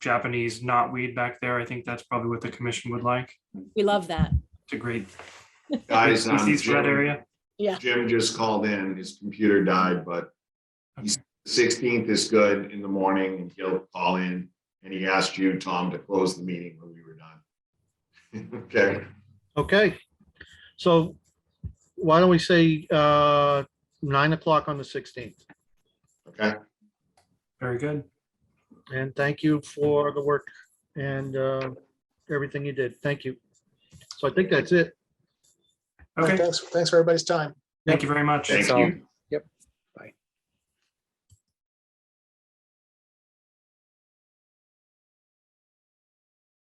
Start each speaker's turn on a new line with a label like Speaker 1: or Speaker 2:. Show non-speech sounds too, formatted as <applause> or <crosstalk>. Speaker 1: Japanese knotweed back there. I think that's probably what the commission would like.
Speaker 2: We love that.
Speaker 1: It's a great
Speaker 3: Guys, um,
Speaker 1: species for that
Speaker 3: Jim,
Speaker 1: area.
Speaker 3: Jim just called in, his computer died, but
Speaker 1: Okay.
Speaker 3: sixteenth is good in the morning and he'll call in. And he asked you, Tom, to close the meeting when we were done. <laughs> Okay,
Speaker 4: Okay, so why don't we say uh nine o'clock on the sixteenth?
Speaker 3: okay,
Speaker 1: Very good.
Speaker 4: And thank you for the work and uh everything you did. Thank you. So I think that's it.
Speaker 1: Okay,
Speaker 5: Thanks, thanks for everybody's time.
Speaker 1: thank you very much.
Speaker 3: thank you.